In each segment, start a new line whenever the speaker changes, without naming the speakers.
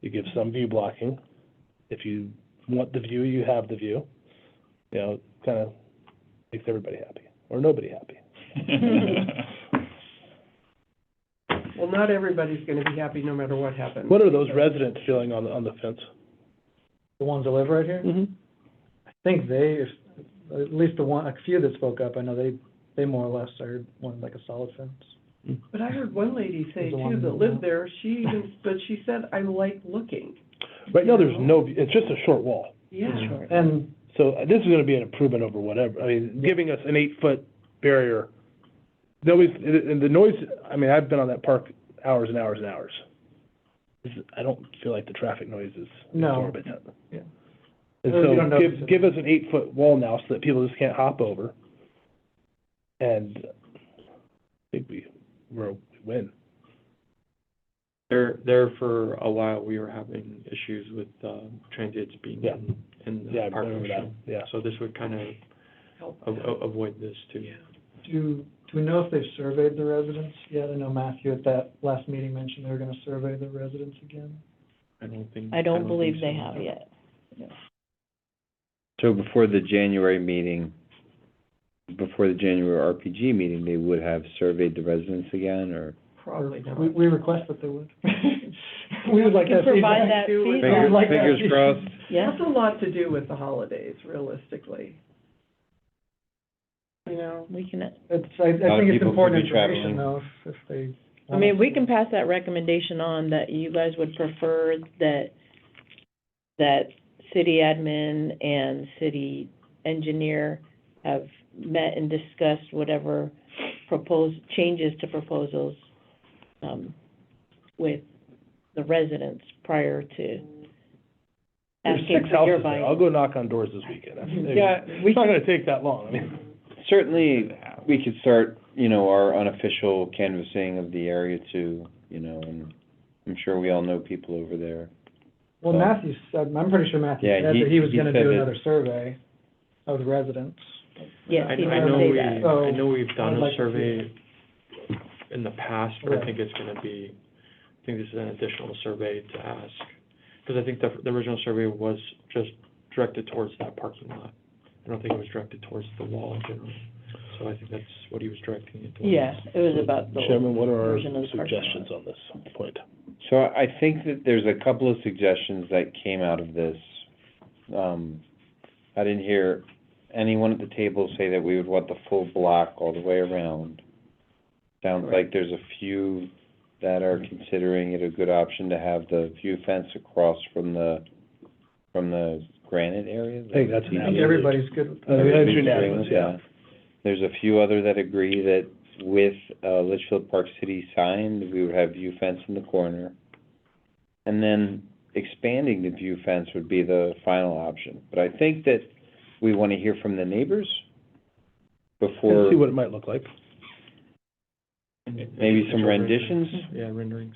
you give some view blocking. If you want the view, you have the view. You know, kind of makes everybody happy, or nobody happy.
Well, not everybody's gonna be happy no matter what happens.
What are those residents feeling on the, on the fence?
The ones that live right here?
Mm-hmm.
I think they, at least the one, a few that spoke up, I know they, they more or less are wanting like a solid fence.
But I heard one lady say
There's a lot
too,
of
that
them now.
lived there, she even, but she said, I like looking.
Right now, there's no, it's just a short wall.
Yeah.
And
So uh, this is gonna be an improvement over whatever, I mean, giving us an eight-foot barrier, nobody's, and and the noise, I mean, I've been on that park hours and hours and hours. This is- I don't feel like the traffic noise is
No.
absorbent.
Yeah.
And
Uh, you don't
so,
notice
give,
it.
give us an eight-foot wall now so that people just can't hop over. And I think we, we're, we win.
There, there for a while, we were having issues with, uh, transients being
Yeah.
in, in
Yeah, I
the park
remember that,
commission.
yeah.
So this would kind of
Help.
Oh,
a- a- avoid this too.
Yeah.
do, do we know if they've surveyed the residents yet? I know Matthew at that last meeting mentioned they were gonna survey the residents again.
I don't think.
I don't
think
believe they
so.
have yet.
So before the January meeting, before the January RPG meeting, they would have surveyed the residents again, or?
Probably not.
We, we request that they would. We would like
You
that
can provide
feedback.
that
Do with-
feedback.
Fingers,
like that.
fingers crossed.
Yeah,
That's a lot to do with the holidays, realistically. You know,
we can,
It's, I,
A
I
lot of
think it's
people could
important
be
information
traveling.
though, if, if they.
I mean, we can pass that recommendation on that you guys would prefer that, that city admin and city engineer have met and discussed whatever proposed, changes to proposals, um, with the residents prior to
There's
asking
six
for your
houses
buy
there, I'll go knock on doors this weekend. That's-
Yeah, we
It's not gonna take that long, I mean.
Certainly, we could start, you know, our unofficial canvassing of the area too, you know, and I'm sure we all know people over there.
Well,
So-
Matthew said, I'm pretty sure Matthew
Yeah,
said
he-
that he was
he
gonna
said
do
that-
another survey of the residents.
Yes,
I,
he
I
will
know
say
we,
that.
So,
I know we've done
I'd
a
like to
survey in the past, but I
Right.
think it's gonna be, I think this is an additional survey to ask. Because I think the, the original survey was just directed towards that parking lot. I don't think it was directed towards the wall in general. So I think that's what he was directing it towards.
Yeah, it was about the.
Chairman, what are our
version of the parking lot.
suggestions on this point?
So I I think that there's a couple of suggestions that came out of this. Um, I didn't hear anyone at the table say that we would want the full block all the way around. Sounds like there's a few that are considering it a good option to have the view fence across from the, from the granite area.
I think that's an
I
absolute.
think everybody's good with that.
I think Uh, that's
Everybody's agreeing
unanimous,
with
yeah.
that. There's a few other that agree that with, uh, Litchfield Park City sign, that we would have view fence in the corner. And then expanding the view fence would be the final option. But I think that we want to hear from the neighbors
And
before
see what it might look like.
maybe some renditions.
Yeah, renderings.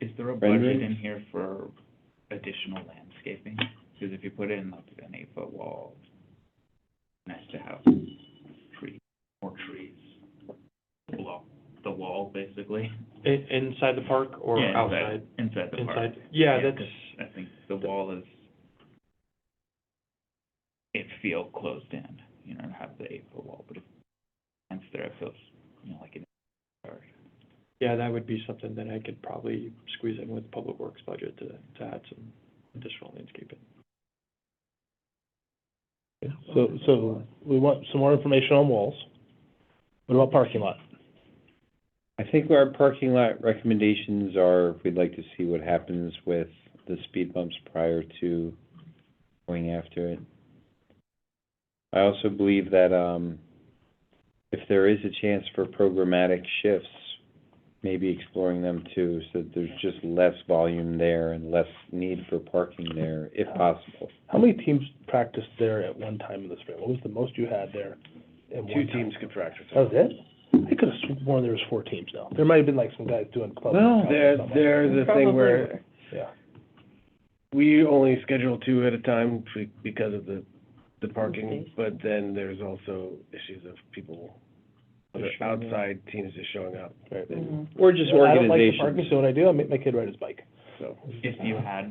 Is there a
Rendering?
budget in here for additional landscaping? Because if you put in like an eight-foot wall, next to house, tree, more trees, block the wall, basically.
In, inside the park or
Yeah,
outside?
Inside the park.
Inside, yeah,
Yeah,
that's,
'cause I think the wall is, it feel closed in, you know, and have the eight-foot wall, but if it's there, it feels, you know, like an yard.
yeah, that would be something that I could probably squeeze in with public works budget to, to add some additional landscaping.
So, so we want some more information on walls. What about parking lot?
I think our parking lot recommendations are, we'd like to see what happens with the speed bumps prior to going after it. I also believe that, um, if there is a chance for programmatic shifts, maybe exploring them too, so that there's just less volume there and less need for parking there, if possible.
How many teams practiced there at one time in the spring? What was the most you had there at one time?
could practice.
That was it? I could have sworn there was four teams now. There might have been like some guys doing club.
Well,
house or
there,
something.
there's a
Probably
thing where
Yeah.
we only schedule two at a time be- because of the, the
Space.
parking, but then there's also issues of people, other
Just showing up.
outside teams just showing up,
Right.
Mhm.
Or just
I don't like the
organizations.
parking, so what I do, I make my kid ride his bike.
so.
If you had